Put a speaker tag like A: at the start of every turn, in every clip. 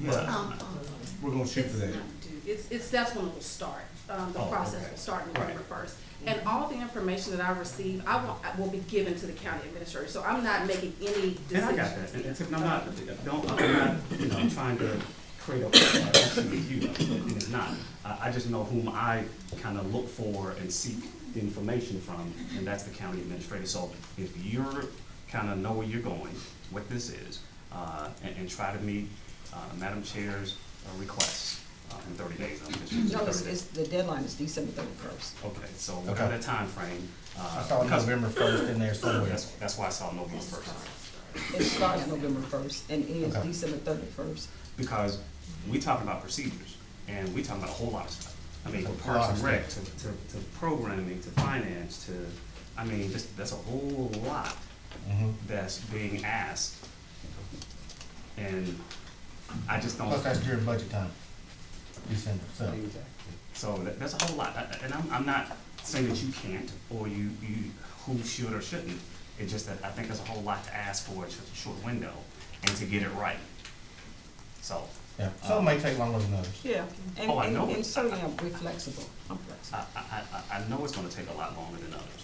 A: Yeah.
B: Um, um,
A: We're gonna shoot
B: it's
A: for that.
B: not due. It's, it's, that's when it will start. Um, the
A: Oh,
B: process
A: okay.
B: will start November
A: Right.
B: first. And all the information that I receive, I will, I will be given to the county administrator, so I'm not making any decisions.
C: And I got that, and
B: Yeah.
C: it's, I'm not, don't, I'm not, you know, trying to create a, relationship with you, and it's not. I, I just know whom I kind of look for and seek information from, and that's the county administrator. So if you're, kind of know where you're going, what this is, uh, and, and try to meet, uh, Madam Chair's uh, requests uh, in thirty days. I'm just using
D: No,
C: 30
D: it's,
C: days.
D: it's, the deadline is December thirty-first.
C: Okay, so
A: Okay.
C: without a timeframe, uh.
E: I saw
C: because-
E: November first in there somewhere.
C: That's, that's why I saw November first.
D: It starts November first and ends
E: Okay.
D: December thirty-first.
C: because we talking about procedures, and we talking about a whole lot of stuff. I mean, from
E: A lot
C: parks
E: of
C: and rec to, to, to programming, to finance, to, I mean, just, that's a whole lot
E: Mhm.
C: that's being asked. And I just don't,
E: Plus, that's during budget time, December, so.
C: so that, that's a whole lot, I- I- and I'm, I'm not saying that you can't, or you, you, who should or shouldn't. It's just that I think there's a whole lot to ask for in such a short window, and to get it right. So,
E: Yeah, some may take longer than others.
D: Yeah, and,
C: Oh, I
D: and,
C: know it.
D: and certainly I'm, we're flexible, I'm flexible.
C: I, I, I, I know it's gonna take a lot longer than others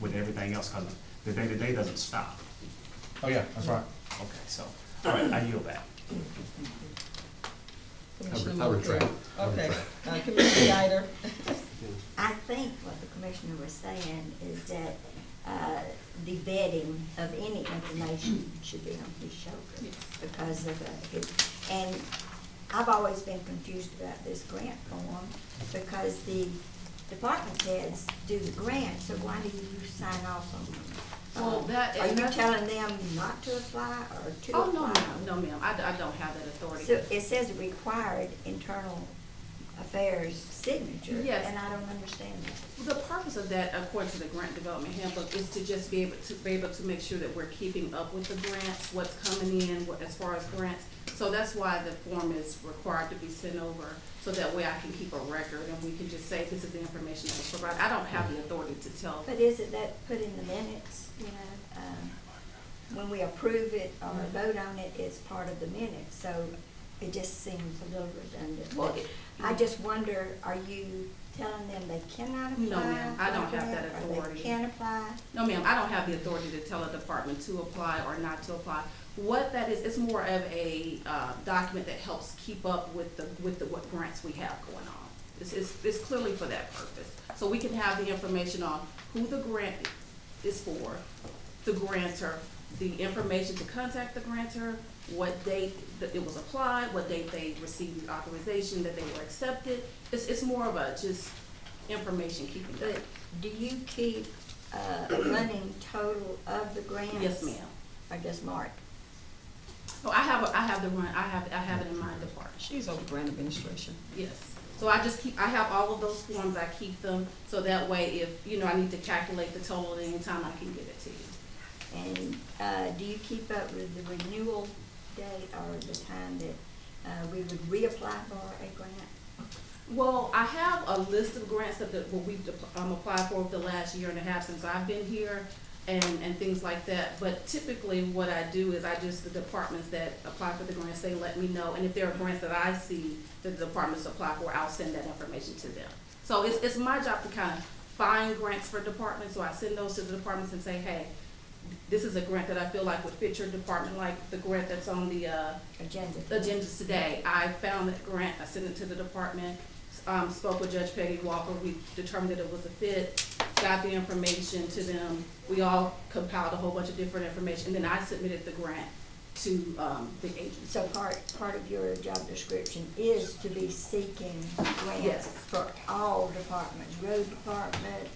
C: with everything else, cause the day-to-day doesn't stop.
E: Oh, yeah, that's right.
C: Okay, so, all right, I yield back.
D: Commissioner
F: I
D: Moore,
F: retract. I
D: Okay,
F: retract.
D: Uh, Commissioner Guyder,
G: I think what the commissioner was saying is that, uh, the vetting of any information should be on his shoulders because of, uh, his- and I've always been confused about this grant form because the department heads do the grant, so why do you sign off on them?
B: Well,
G: Uh,
B: that-
G: Are
B: and
G: you
B: that's-
G: telling them not to apply or to apply?
B: Oh, no, ma'am, no, ma'am, I, d- I don't have that authority.
G: So it says required internal affairs signature.
B: Yes.
G: And I don't understand that.
B: The purpose of that, according to the grant development handbook, is to just be able to, be able to make sure that we're keeping up with the grants, what's coming in, what, as far as grants. So that's why the form is required to be sent over, so that way I can keep a record and we can just say, this is the information that was provided. I don't have the authority to tell.
G: But isn't that put in the minutes, you know, um, when we approve it or
B: Mm-hmm.
G: vote on it, it's part of the minutes, so it just seems a little redundant.
B: Well, it-
G: I just wonder, are you telling them they cannot apply?
B: No, ma'am, I don't
G: for
B: have that
G: or
B: authority.
G: they can apply?
B: No, ma'am, I don't have the authority to tell a department to apply or not to apply. What that is, it's more of a, uh, document that helps keep up with the, with the, what grants we have going on. It's, it's, it's clearly for that purpose. So we can have the information on who the grant is for, the grantor, the information to contact the grantor, what date that it was applied, what date they received authorization, that they were accepted. It's, it's more of a just information keeping.
G: But do you keep uh, a running total of the grants?
B: Yes, ma'am.
G: Or just mark?
B: Oh, I have, a- I have the run, I have, I have it in mind, the part,
D: she's over grant administration.
B: yes. So I just keep, I have all of those forms, I keep them, so that way if, you know, I need to calculate the total at any time, I can give it to you.
G: And uh, do you keep up with the renewal date or the time that uh, we would reapply for a grant?
B: Well, I have a list of grants that, that we've um, applied for over the last year and a half since I've been here and, and things like that. But typically, what I do is I just, the departments that apply for the grants, they let me know. And if there are grants that I see that the departments apply for, I'll send that information to them. So it's, it's my job to kind of find grants for departments, so I send those to the departments and say, hey, this is a grant that I feel like would fit your department, like the grant that's on the, uh,
G: Agenda.
B: agendas today. I found that grant, I sent it to the department, um, spoke with Judge Peggy Walker, we determined that it was a fit, got the information to them. We all compiled a whole bunch of different information, and then I submitted the grant to, um, the agency.
G: So part, part of your job description is to be seeking grants
B: Yes.
G: for all departments, road department,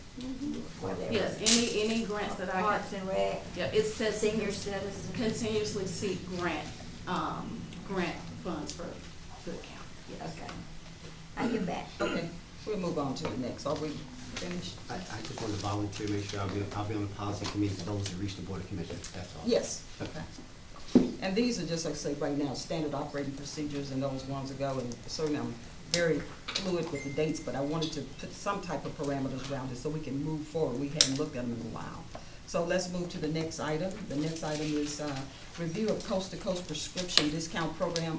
G: whatever.
B: Mm-hmm. Yes, any, any grants that I
G: Parks
B: have,
G: and rec,
B: yeah, it says
G: senior citizens.
B: continuously seek grant, um, grant funds for the county, yes.
G: Okay. I give back.
D: Okay, we'll move on to the next, are we finished?
F: I, I just wanted to volunteer, make sure I'll be, I'll be on the policy committee for those who reach the board of commissioners, that's all.
D: Yes, okay. And these are just, like I say, right now, standard operating procedures and those ones ago, and certainly I'm very fluid with the dates, but I wanted to put some type of parameters around it so we can move forward. We hadn't looked at them in a while. So let's move to the next item. The next item is, uh, review of coast-to-coast prescription discount program